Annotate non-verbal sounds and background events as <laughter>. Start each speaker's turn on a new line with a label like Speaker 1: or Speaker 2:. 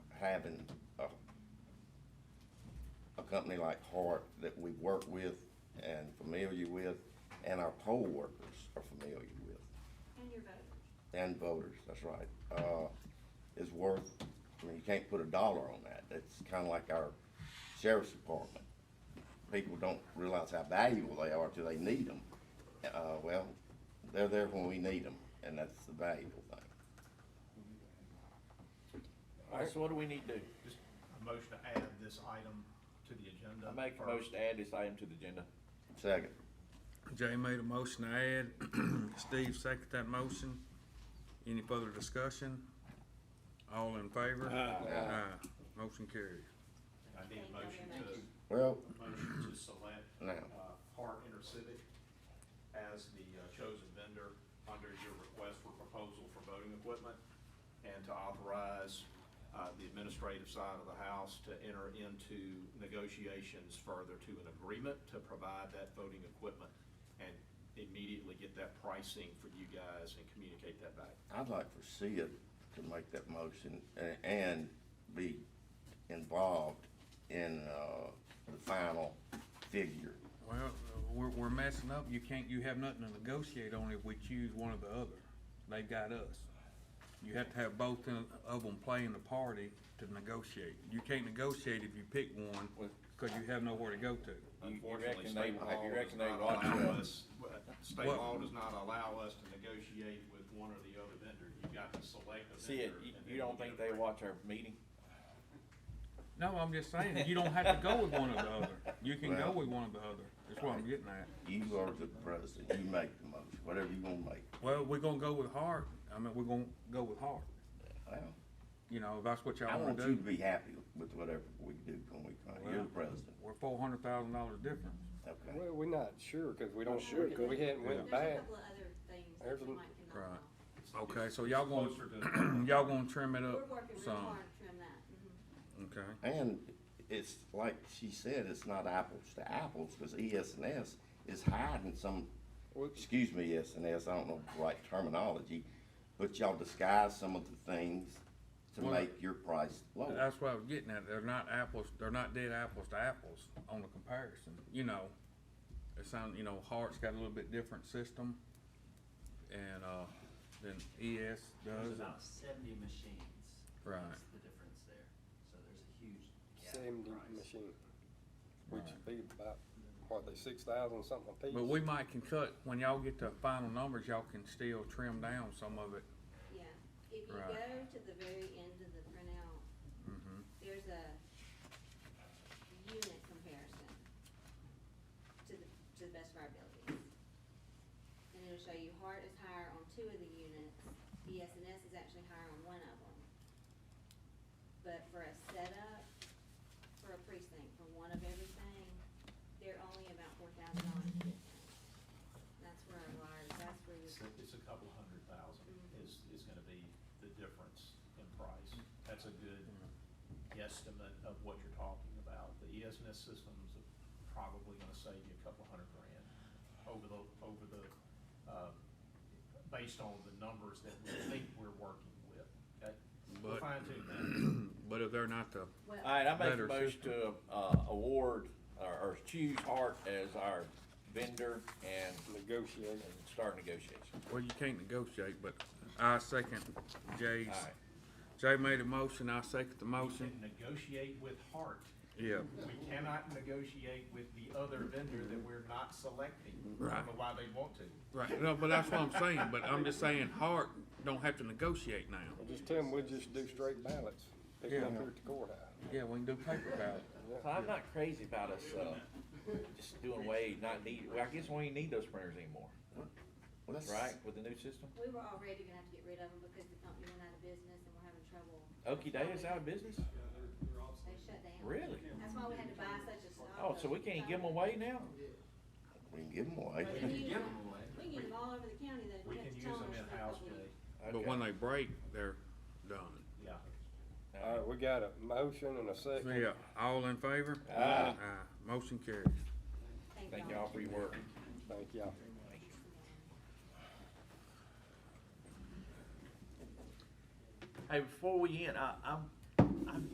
Speaker 1: having a, a company like Hart that we work with and familiar with, and our poll workers are familiar with,
Speaker 2: And your voters.
Speaker 1: and voters, that's right, uh, is worth, I mean, you can't put a dollar on that. It's kinda like our sheriff's department. People don't realize how valuable they are till they need them. Uh, well, they're there when we need them, and that's the valuable thing.
Speaker 3: Alright, so what do we need to do?
Speaker 4: Just a motion to add this item to the agenda.
Speaker 3: I make a
Speaker 4: first.
Speaker 3: motion to add this item to the agenda.
Speaker 1: Second,
Speaker 5: Jay made a motion to add, <clears throat> Steve seconded that motion. Any further discussion? All in favor? Aye. Motion carried.
Speaker 4: I need a motion to,
Speaker 1: well,
Speaker 4: motion to select,
Speaker 1: now,
Speaker 4: uh, Hart Intercivic as the uh, chosen vendor under your request for proposal for voting equipment and to authorize, uh, the administrative side of the house to enter into negotiations further to an agreement to provide that voting equipment and immediately get that pricing for you guys and communicate that back.
Speaker 1: I'd like for Sid to make that motion a- and be involved in, uh, the final figure.
Speaker 5: Well, we're, we're messing up. You can't, you have nothing to negotiate on if we choose one or the other. They've got us. You have to have both in- of them playing the party to negotiate. You can't negotiate if you pick one, cause you have nowhere to go to.
Speaker 3: You- you
Speaker 4: Unfortunately,
Speaker 3: reckon they-
Speaker 4: state law
Speaker 3: you reckon
Speaker 4: does
Speaker 3: they
Speaker 4: not
Speaker 3: want
Speaker 4: allow
Speaker 3: to-
Speaker 4: us- State
Speaker 5: What-
Speaker 4: law does not allow us to negotiate with one or the other vendor. You've got to select a vendor.
Speaker 3: See, it, you,
Speaker 4: and then
Speaker 3: you don't
Speaker 4: get
Speaker 3: think
Speaker 4: a
Speaker 3: they
Speaker 4: rate.
Speaker 3: watch our meeting?
Speaker 5: No, I'm just saying, you don't have to go with one or the other. You can go with one or the other. That's what I'm getting at.
Speaker 1: You are the president, you make the motion, whatever you wanna make.
Speaker 5: Well, we're gonna go with Hart. I mean, we're gonna go with Hart.
Speaker 1: Well,
Speaker 5: You know, if that's what
Speaker 1: I
Speaker 5: y'all wanna
Speaker 1: want you to
Speaker 5: do.
Speaker 1: be happy with whatever we do when we, come. you're the president,
Speaker 5: We're four hundred thousand dollars difference.
Speaker 1: okay?
Speaker 6: Well, we're not Oh, sure, cause we don't, we hadn't went
Speaker 2: There's a
Speaker 6: back.
Speaker 2: couple of other things that
Speaker 6: There's
Speaker 2: you
Speaker 6: a-
Speaker 2: might can
Speaker 5: Right.
Speaker 2: knock off.
Speaker 5: Okay, so y'all <clears throat>
Speaker 4: Closer to-
Speaker 5: gonna, y'all gonna trim it
Speaker 2: We're
Speaker 5: up
Speaker 2: working real
Speaker 5: some.
Speaker 2: hard to trim that. Mhm.
Speaker 5: Okay.
Speaker 1: And it's like she said, it's not apples to apples, cause ES and S is hiding some, excuse me, ES and S, I don't know the right terminology, but y'all disguise some of the things to
Speaker 5: Well-
Speaker 1: make your price lower.
Speaker 5: That's what I was getting at. They're not apples, they're not dead apples to apples on the comparison, you know. It sound, you know, Hart's got a little bit different system and, uh, than ES
Speaker 7: There's
Speaker 5: does.
Speaker 7: about seventy machines.
Speaker 5: Right.
Speaker 7: That's the difference there, so there's a huge gap in
Speaker 6: Seventy
Speaker 7: price.
Speaker 6: machine, which would be about, what, they six thousand something a piece?
Speaker 5: But we might can cut, when y'all get to final numbers, y'all can still trim down some of it.
Speaker 2: Yeah, if you
Speaker 5: Right.
Speaker 2: go to the very end of the printout,
Speaker 5: Mhm.
Speaker 2: there's a unit comparison to the, to the best of our abilities. And it'll show you Hart is higher on two of the units, ES&S is actually higher on one of them. But for a setup, for a precinct, for one of everything, they're only about four thousand dollars a difference. That's where our liars, that's where you,
Speaker 4: It's it's a couple hundred thousand is, is gonna be the difference in price. That's a good guesstimate of what you're talking about. The E ESNS system's probably gonna save you a couple hundred grand over the, over the, uh, based on the numbers that we think we're working with. That, we'll
Speaker 5: But-
Speaker 4: fine tune that.
Speaker 5: <clears throat> But if they're not the,
Speaker 2: well.
Speaker 3: Alright, I make a
Speaker 5: Better
Speaker 3: motion to, uh, award, or, or choose Hart as our vendor and
Speaker 6: Negotiating.
Speaker 3: and start negotiations.
Speaker 5: well, you can't negotiate, but I second Jay's.
Speaker 3: Alright.
Speaker 5: Jay made a motion, I second the
Speaker 4: We can
Speaker 5: motion.
Speaker 4: negotiate with heart.
Speaker 5: Yeah,
Speaker 4: We cannot negotiate with the other vendor that we're not selecting. I
Speaker 5: Right.
Speaker 4: don't know why they want to.
Speaker 5: right, no, but that's what I'm saying, but I'm just saying Hart don't have to negotiate now.
Speaker 6: Well, Just tell them we'll just do straight ballots, pick 'em up
Speaker 5: Yeah.
Speaker 6: here at the courthouse.
Speaker 5: Yeah, we can do paper ballot.
Speaker 3: So I'm not crazy about us, uh, just doing away, not need, well, I guess we ain't need those printers anymore,
Speaker 1: Well, that's-
Speaker 3: right, with the new system?
Speaker 2: We were already gonna have to get rid of them because the company went out of business and we're having trouble.
Speaker 3: Okie doke, it's out of business?
Speaker 2: They shut down.
Speaker 3: Really?
Speaker 2: That's why we had to buy such a stock.
Speaker 3: Oh, so we
Speaker 2: of-
Speaker 3: can't give them away now?
Speaker 1: We can give them
Speaker 2: We
Speaker 1: away.
Speaker 2: can
Speaker 7: If you
Speaker 2: use
Speaker 7: give 'em
Speaker 2: them-
Speaker 7: away,
Speaker 2: We can use them all over the county though.
Speaker 4: We
Speaker 2: You have
Speaker 4: can
Speaker 2: to
Speaker 4: use
Speaker 2: tell
Speaker 4: them
Speaker 2: us what
Speaker 4: in-house,
Speaker 2: we-
Speaker 4: Jay.
Speaker 5: But when they break, they're done.
Speaker 4: Yeah.
Speaker 3: All right.
Speaker 6: Alright, we got a motion and a second.
Speaker 5: Yeah, all in favor?
Speaker 3: Aye.
Speaker 5: Motion carries.
Speaker 3: Thank y'all for your work.
Speaker 6: Thank y'all.
Speaker 3: Hey, before we end, I, I'm